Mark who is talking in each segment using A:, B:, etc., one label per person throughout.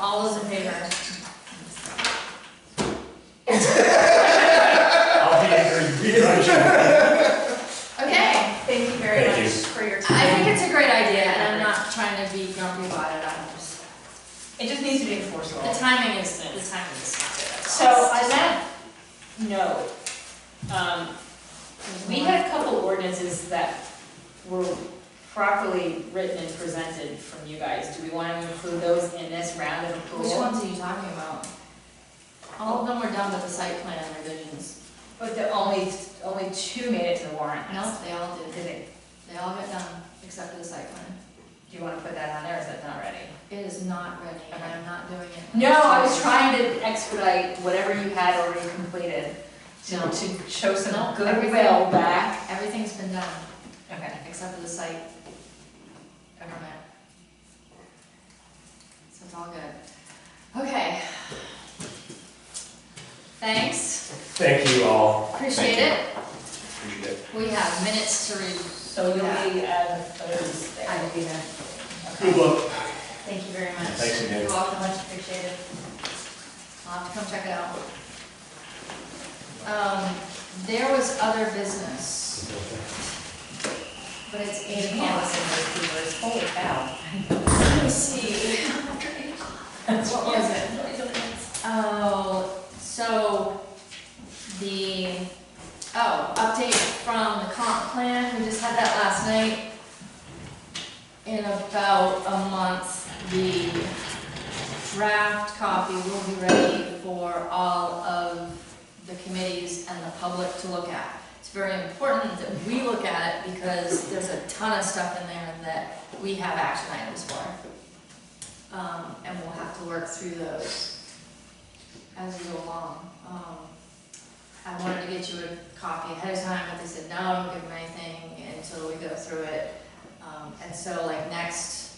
A: All those in favor?
B: I'll be angry.
A: Okay, thank you very
B: Thank
A: much
B: you.
A: for your
C: I
A: time.
C: think it's a great idea, and I'm not trying to be grumpy about it, I'm just,
A: It just needs to be
C: the
A: enforceable.
C: timing is, the timing is not good at all.
D: So on that note, um, we had a couple ordinances that were properly written and presented from you guys. Do we want to include those in this round of approval?
C: Which ones are you talking about? All of them were done with the site plan revisions.
D: But the only, only two made it to the warrant.
C: No, they all did.
D: Did it,
C: They all got done, except for the site plan.
D: do you want to put that on there, or is that not ready?
C: It is not ready, and I'm not doing it.
D: No, I was trying to expedite whatever you had already completed, to,
C: No.
D: to show
C: No,
D: some
C: everything-
D: goodwill back.
C: Everything's been done,
D: Okay.
C: except for the site permit. So it's all good. Okay. Thanks,
B: Thank you all.
C: appreciate it.
B: Appreciate it.
C: We have minutes to read.
D: So you'll be, uh, Thursday.
C: I will be there.
B: Good luck.
C: Thank you very much.
B: Thanks again.
C: You're welcome, much appreciated. I'll have to come check it out. Um, there was other business. But it's eight o'clock.
D: Holy cow.
C: Let me see. What was it? Oh, so the, oh, update from the comp plan, we just had that last night. In about a month, the draft copy will be ready for all of the committees and the public to look at. It's very important that we look at it because there's a ton of stuff in there that we have action items for. Um, and we'll have to work through those as we go along. Um, I wanted to get you a copy ahead of time, but they said, no, don't give them anything until we go through it. Um, and so like next,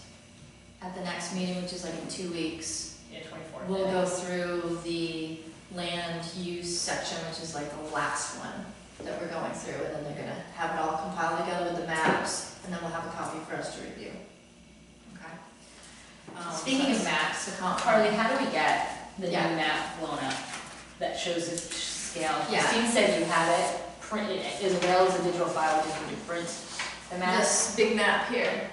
C: at the next meeting, which is like in two weeks,
D: Yeah, twenty-four.
C: we'll go through the land use section, which is like the last one that we're going through, and then they're gonna have it all compiled together with the maps, and then we'll have a copy for us to review. Okay? Um,
D: Speaking of
C: maps, the comp.
D: Carly, how do we get the new
C: Yeah.
D: map blown up that shows the scale?
C: Yeah.
D: Christine said you have it printed, as well as a digital file, just need to print the map.
C: This big map here.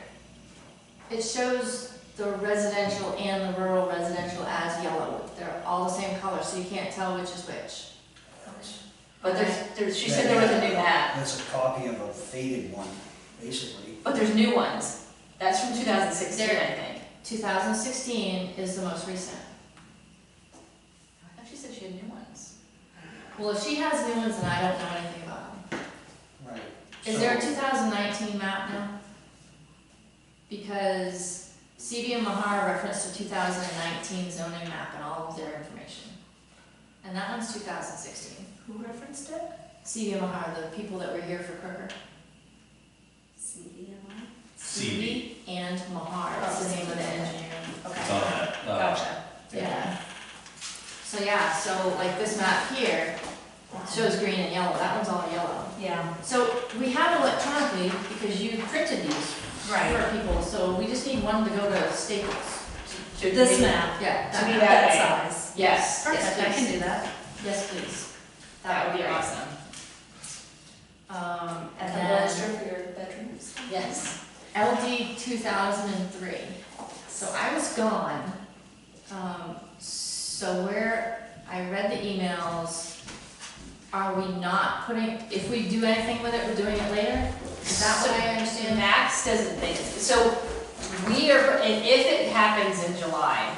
C: It shows the residential and the rural residential as yellow. They're all the same color, so you can't tell which is which.
D: But there's, there's, she said there was a new map,
E: That's a copy of a faded one, basically.
D: but there's new ones. That's from two thousand sixteen, I think.
C: 2016 is the most recent.
D: I thought she said she had new ones.
C: Well, if she has new ones, then I don't know anything about them.
E: Right.
C: Is there a 2019 map now? Because CB and Mahar referenced a 2019 zoning map and all of their information. And that one's 2016.
D: Who referenced it?
C: CB and Mahar, the people that were here for Crooker.
D: CDMI.
F: CB.
C: CB and Mahar, is the name of the engineer.
F: It's
D: Okay,
F: on that. uh,
C: Oh,
D: gotcha.
C: Yeah. So yeah, so like this map here shows green and yellow, that one's all yellow.
D: Yeah,
C: So we have electronically, because you printed these
D: right.
C: for people, so we just need one to go to Staples.
D: This map.
C: Yeah.
D: To be
C: map.
D: that size.
C: Yes, yes,
D: Perfect, I can
C: please.
D: do that.
C: Yes, please.
D: That would be
C: great.
D: awesome.
C: Um, and then,
D: for your bedrooms.
C: yes, LD two thousand and three. So I was gone. Um, so where, I read the emails. Are we not putting, if we do anything with it, we're doing it later? Is that what I
D: And
C: understand?
D: Max doesn't think, so we are, and if it happens in July,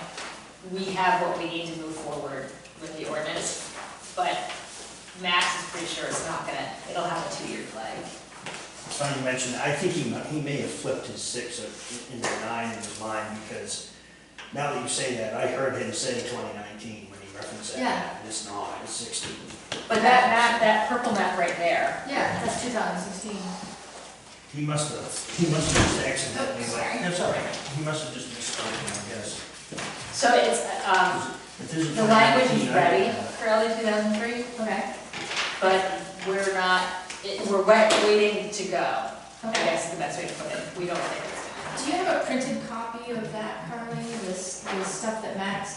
D: we have what we need to move forward with the ordinance. But Max is pretty sure it's not gonna, it'll have a two-year lag.
E: Funny you mentioned, I think he, mu- he may have flipped his six or- into a nine in his mind, because now that you say that, I heard him say twenty nineteen when he referenced that.
C: Yeah.
E: And It's not, it's sixteen.
D: But that map, that purple map right there,
C: Yeah, that's two thousand sixteen.
E: He must have, he must have just accidentally,
C: Sorry.
E: like, that's all right, he must have just misspoken, I guess.
D: so it's, um,
E: If this is
D: the language
E: 2019, I
D: is
E: don't
D: ready
E: know.
D: for LD two thousand three,
C: Okay,
D: but we're not, it- we're wait- waiting to go. I
C: okay.
D: guess is the best way to put it, we don't think it's gonna.
C: Do you have a printed copy of that, Carly, this, the stuff that Max